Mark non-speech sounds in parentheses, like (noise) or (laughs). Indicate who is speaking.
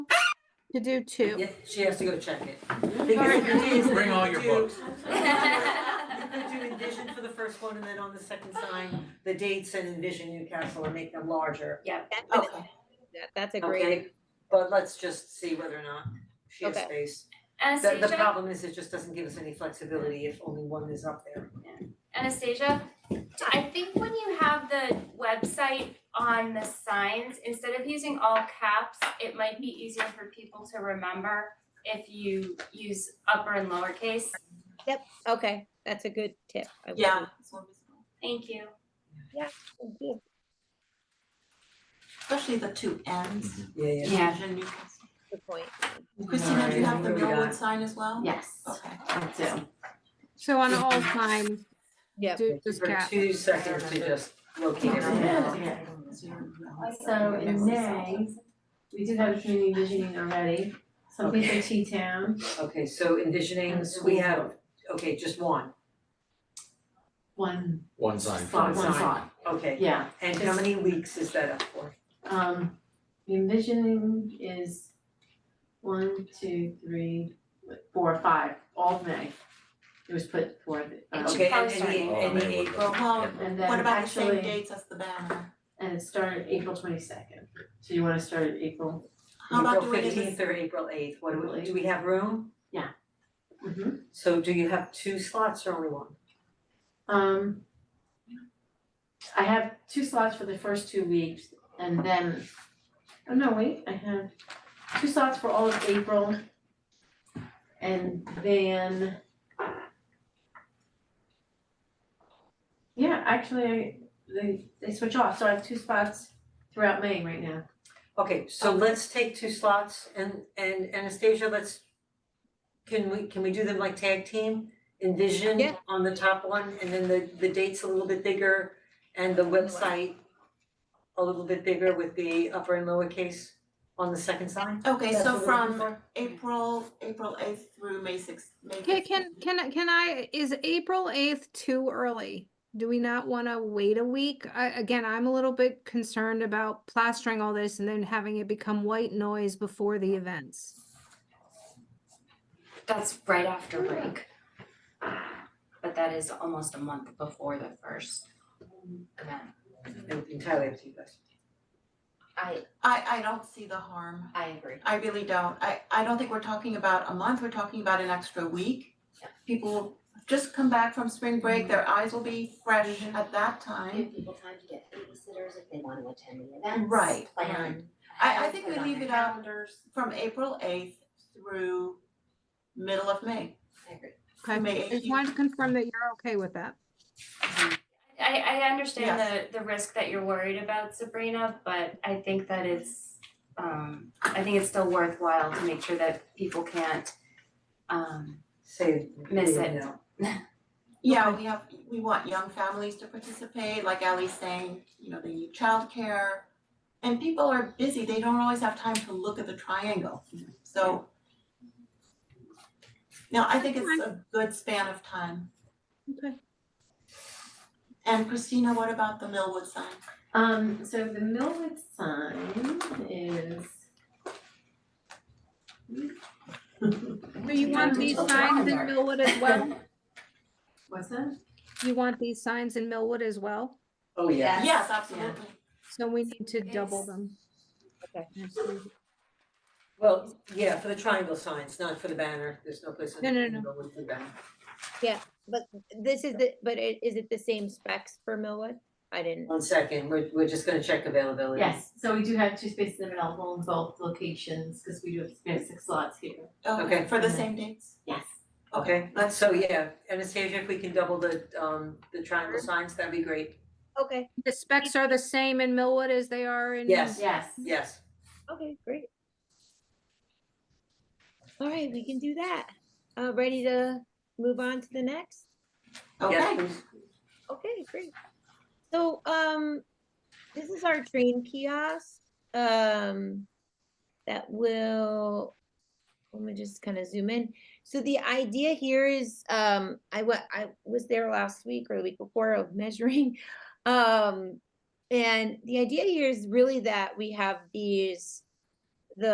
Speaker 1: to do two.
Speaker 2: Yeah, she has to go check it.
Speaker 1: Alright.
Speaker 2: Because
Speaker 3: Bring all your
Speaker 2: you
Speaker 3: books.
Speaker 2: You could do envision for the first one and then on the second sign, the dates and envision Newcastle and make them larger. Okay,
Speaker 1: That- That's a
Speaker 2: okay,
Speaker 1: great,
Speaker 2: but let's just see whether or not she has
Speaker 1: Okay.
Speaker 2: space. The the
Speaker 4: Anastasia,
Speaker 2: problem is it just doesn't give us any flexibility if only one is up there.
Speaker 4: Anastasia, I think when you have the website on the signs, instead of using all caps, it might be easier for people to remember if you use upper and lowercase.
Speaker 1: okay, that's a good tip. I will
Speaker 2: Yeah.
Speaker 1: do.
Speaker 4: Thank you.
Speaker 1: Thank you.
Speaker 5: Especially the two ends,
Speaker 2: Yeah, yeah.
Speaker 4: Yeah.
Speaker 5: Vision Newcastle.
Speaker 1: Good point.
Speaker 5: Christina, do you have
Speaker 2: Alright,
Speaker 5: the
Speaker 2: who we
Speaker 5: Millwood
Speaker 2: got?
Speaker 5: sign as well?
Speaker 4: Yes.
Speaker 5: Okay.
Speaker 6: So on all signs,
Speaker 1: Yeah.
Speaker 6: do this
Speaker 2: For
Speaker 6: cap.
Speaker 2: two seconds to just locate everything.
Speaker 7: So in May, we did have a community visioning already, something for T-Town.
Speaker 2: Okay, so envisioning, so we have, okay, just one,
Speaker 7: One.
Speaker 3: One sign.
Speaker 2: One sign.
Speaker 7: sign.
Speaker 2: okay.
Speaker 7: Yeah,
Speaker 2: And how many weeks is that up for?
Speaker 7: um, the envisioning is one, two, three, four, five, all of May. It was put for the, um,
Speaker 2: Okay, and
Speaker 4: probably
Speaker 2: and the,
Speaker 3: Oh,
Speaker 2: and the
Speaker 3: maybe.
Speaker 2: April,
Speaker 5: Well,
Speaker 7: and then
Speaker 5: what about the same
Speaker 7: actually,
Speaker 5: dates as the banner?
Speaker 7: and it started April twenty-second, so you wanna start at April?
Speaker 5: How about
Speaker 2: April
Speaker 5: doing it
Speaker 2: fifteenth
Speaker 5: as,
Speaker 2: or April eighth, what do we,
Speaker 7: Really?
Speaker 2: do we have room?
Speaker 7: Mm-hmm.
Speaker 2: So do you have two slots or only one?
Speaker 7: Um, I have two slots for the first two weeks and then, oh no, wait, I have two slots for all of April. And then. Yeah, actually, they they switch off, so I have two spots throughout May right now.
Speaker 2: Okay,
Speaker 5: Um,
Speaker 2: so let's take two slots and and Anastasia, let's can we can we do them like tag team? Envision
Speaker 1: Yeah.
Speaker 2: on the top one and then the the date's a little bit bigger and the website a little bit bigger with the upper and lowercase on the second sign?
Speaker 5: okay,
Speaker 2: That's
Speaker 5: so
Speaker 2: what we're looking
Speaker 5: from
Speaker 2: for.
Speaker 5: April, April eighth through May sixth, May
Speaker 6: Can,
Speaker 5: 15th.
Speaker 6: can, can, I- can I, is April eighth too early? Do we not want to wait a week? I, again, I'm a little bit concerned about plastering all this and then having it become white noise before the events.
Speaker 4: That's right after break. But that is almost a month before the first event. Mm-hmm.
Speaker 2: Entirely up to you guys.
Speaker 4: I
Speaker 5: I I don't see the harm.
Speaker 4: I agree.
Speaker 5: I really don't. I I don't think we're talking about a month, we're talking about an extra week.
Speaker 4: Yeah.
Speaker 5: People will just come back from spring break, their eyes will be fresh at that time.
Speaker 8: give people time to get babysitters if they want to attend the events.
Speaker 5: Right,
Speaker 8: Plan.
Speaker 5: I I think
Speaker 8: put
Speaker 5: we
Speaker 8: on
Speaker 5: leave
Speaker 8: their
Speaker 5: it out
Speaker 8: Calendars.
Speaker 5: from April eighth through middle of May.
Speaker 8: I agree.
Speaker 6: Okay,
Speaker 5: May
Speaker 6: I just
Speaker 5: 18th.
Speaker 6: wanted to confirm that you're okay with that.
Speaker 4: I I understand the the risk that you're worried about Sabrina, but I think that it's um I think it's still worthwhile to make sure that people can't um
Speaker 2: Say,
Speaker 4: Miss
Speaker 2: you
Speaker 4: it.
Speaker 2: know.
Speaker 5: Yeah, we have, we want young families to participate, like Ally's saying, you know, they need childcare. And people are busy, they don't always have time to look at the triangle, so. No, I think it's a good span of time.
Speaker 6: Okay.
Speaker 5: And Christina, what about the Millwood sign?
Speaker 7: Um, so the Millwood sign is.
Speaker 6: Do you want these signs in Millwood as well?
Speaker 7: What's that?
Speaker 6: You want these signs in Millwood as well?
Speaker 2: Oh, yeah.
Speaker 8: Yes.
Speaker 5: Yes, absolutely.
Speaker 6: So we need to double
Speaker 4: Yes.
Speaker 6: them.
Speaker 1: Okay.
Speaker 2: Well, yeah, for the triangle signs, not for the banner. There's no place in
Speaker 6: No,
Speaker 2: the
Speaker 6: no,
Speaker 2: triangle with the banner.
Speaker 1: But this is the, but it, is it the same specs for Millwood? I didn't.
Speaker 2: One second, we're we're just gonna check availability.
Speaker 7: Yes, so we do have two spaces available in both locations, because we do have, we have six slots here.
Speaker 2: Okay.
Speaker 5: For the same dates?
Speaker 7: Yes.
Speaker 2: Okay, let's, so yeah, Anastasia, if we can double the um the triangle signs, that'd be great.
Speaker 1: Okay,
Speaker 6: The specs are the same in Millwood as they are in.
Speaker 2: Yes.
Speaker 7: Yes.
Speaker 2: Yes,
Speaker 1: okay, great. All right, we can do that. Uh, ready to move on to the next?
Speaker 2: yes,
Speaker 5: Okay,
Speaker 2: please.
Speaker 1: Okay, great. So, um, this is our train kiosk, um, that will, let me just kind of zoom in. So the idea here is, um, I wa- I was there last week or the week before of (laughs) measuring. Um, and the idea here is really that we have these